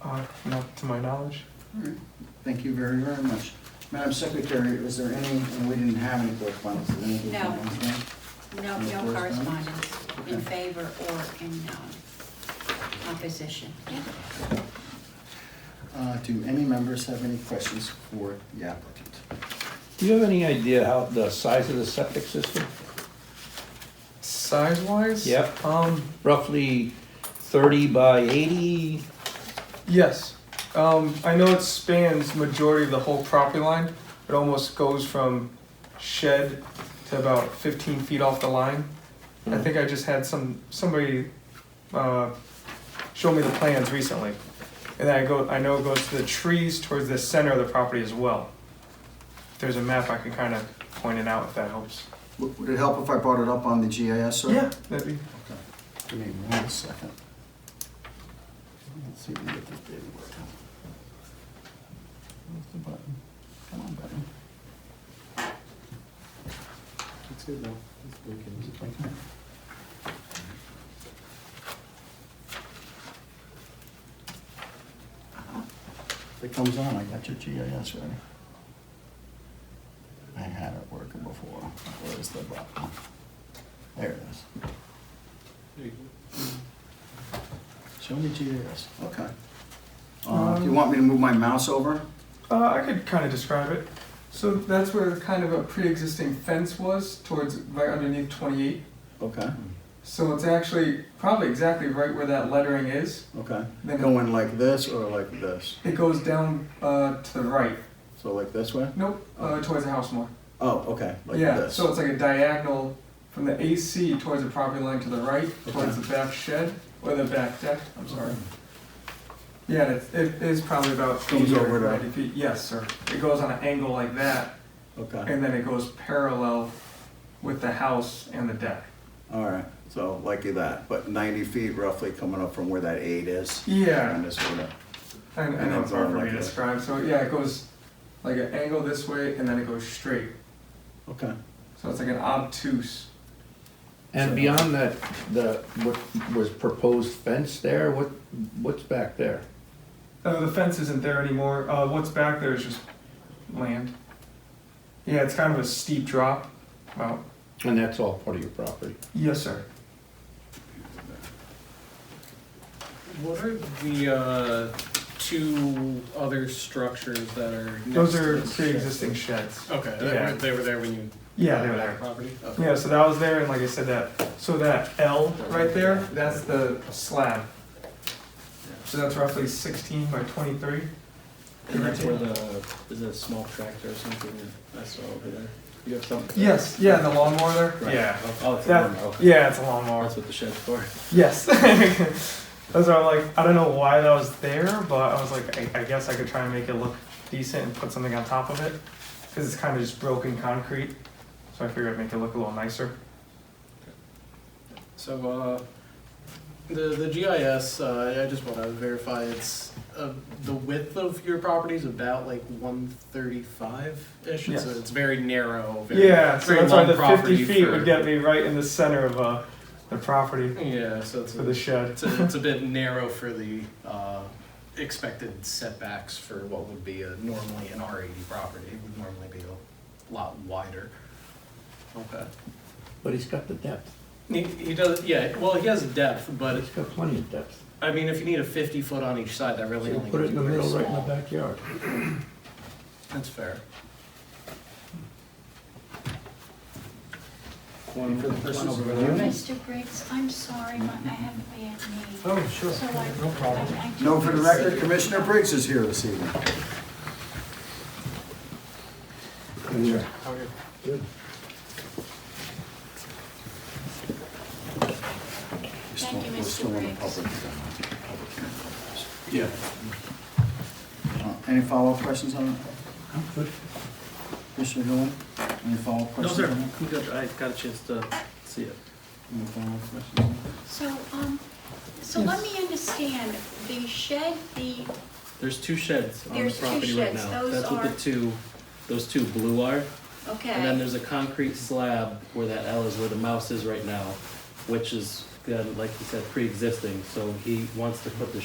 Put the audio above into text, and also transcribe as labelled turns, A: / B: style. A: Uh, Not to my knowledge.
B: All right. Thank you very, very much. Madam Secretary, is there any, and we didn't have any correspondence, is there any?
C: No.
B: correspondence,
C: No, no
B: Any correspondence?
C: correspondence in favor or in um, opposition.
B: ma'am? Uh, Do any members have any questions for the applicant?
D: Do you have any idea how, the size of the septic system?
A: Size wise?
D: Yep.
A: Um,
D: Roughly thirty by eighty?
A: yes. Um, I know it spans majority of the whole property line. It almost goes from shed to about fifteen feet off the line. I think I just had some, somebody, uh, show me the plans recently. And I go, I know it goes to the trees towards the center of the property as well. If there's a map, I can kind of point it out if that helps.
B: Would would it help if I brought it up on the GIS, sir?
A: Yeah, that'd be,
B: Okay. Give me one second. Let's see if we can get this baby working. Where's the button? Come on, button. It's good though. It's working. If it comes on, I got your GIS ready. I had it working before. Where's the button? There it is. Show me GIS. Okay. Uh,
A: Um,
B: do you want me to move my mouse over?
A: Uh, I could kind of describe it. So that's where kind of a pre-existing fence was towards right underneath 28.
B: Okay,
A: So it's actually probably exactly right where that lettering is.
B: okay.
A: Then it-
B: Going like this or like this?
A: it goes down uh, to the right.
B: So like this way?
A: Nope, uh, towards the house more.
B: Oh, okay, like
A: yeah,
B: this.
A: so it's like a diagonal from the AC towards the property line to the right, towards
B: Okay.
A: the back shed or the back deck. I'm sorry. Yeah, and it's, it is probably about
B: Comes
A: 80 or
B: over to-
A: 90 feet. Yes, sir. It goes on an angle like that,
B: Okay,
A: and then it goes parallel with the house and the deck.
B: all right. So like that, but ninety feet roughly coming up from where that eight is. And
A: Yeah,
B: this sort of,
A: I, I
B: And
A: know
B: then
A: it's hard for
B: going
A: me
B: like
A: to
B: this.
A: describe. So yeah, it goes like an angle this way and then it goes straight.
B: okay.
A: So it's like an obtuse.
D: And beyond that, the, what was proposed fence there, what, what's back there?
A: Uh, the fence isn't there anymore. Uh, what's back there is just land. Yeah, it's kind of a steep drop. Well,
D: And that's all part of your property?
A: yes, sir.
E: What are the uh, two other structures that are? next
A: Those
E: to
A: are
E: this?
A: pre-existing sheds.
E: Okay, they
A: Yeah.
E: were, they were there when you.
A: Yeah,
E: bought
A: they were
E: the
A: there.
E: Property? Okay.
A: Yeah, so that was there, and like I said, that so that L right there, that's the slab. So that's roughly 16 by 23.
F: And that's where the, is it a small tractor or something I saw over there? You have something?
A: Yes, yeah, and the lawnmower there.
F: Right.
A: Yeah.
F: Oh, it's a
A: That-
F: lawnmower, okay.
A: Yeah, it's a lawnmower.
F: That's what the shed's for.
A: Yes. Those are like I don't know why that was there, but I was like, I, I guess I could try and make it look decent and put something on top of it, because it's kind of just broken concrete. So I figured I'd make it look a little nicer.
E: So, uh, the, the GIS, uh, I just want to verify it's, uh, the width of your property is about like one thirty-five-ish?
A: Yes.
E: So it's very narrow, very.
A: Yeah, so
E: very
A: that's why
E: long
A: the
E: property
A: fifty feet
E: for-
A: would get me right in the center of uh, the property
E: Yeah, so it's.
A: for
E: a-
A: the shed.
E: It's a, it's a bit narrow for the uh, expected setbacks for what would be a, normally an R80 property. It would normally be a lot wider. Okay.
D: But he's got the depth,
E: He, he does, yeah, well, he has depth, but
D: he's got plenty of depth.
E: I mean, if you need a 50 foot on each side, that
D: So
E: really
D: you
E: only
D: put it
E: gets
D: in the
E: very
D: middle, right in the
E: small.
D: backyard.
E: That's fair.
F: One for the person over there.
C: Mr. Briggs, I'm sorry, my- I haven't been named.
F: Oh, sure.
C: So I-
F: No problem.
C: I- I do
B: No, for the record,
C: see.
B: Commissioner Briggs is here this evening.
D: Yeah.
B: We're still-
C: you,
B: we're
C: Mr.
B: still in the
C: Briggs.
B: public, uh, public hearing.
F: Yeah.
B: Uh, Any follow-up questions on,
D: Good.
B: Commissioner Hill? Any follow-up
F: No,
B: questions?
F: sir,
B: on that?
F: I'm good. I got a chance to see it.
B: Any follow-up questions on that?
C: So, um, so let me understand, the shed, the,
F: There's two sheds on the
C: There's two
F: property right
C: sheds.
F: now.
C: Those
F: That's what the
C: are-
F: two, those two blue are. And then
C: okay,
F: there's a concrete slab where that L is where the mouse is right now, which is, uh, like you said, pre-existing. So he wants to put the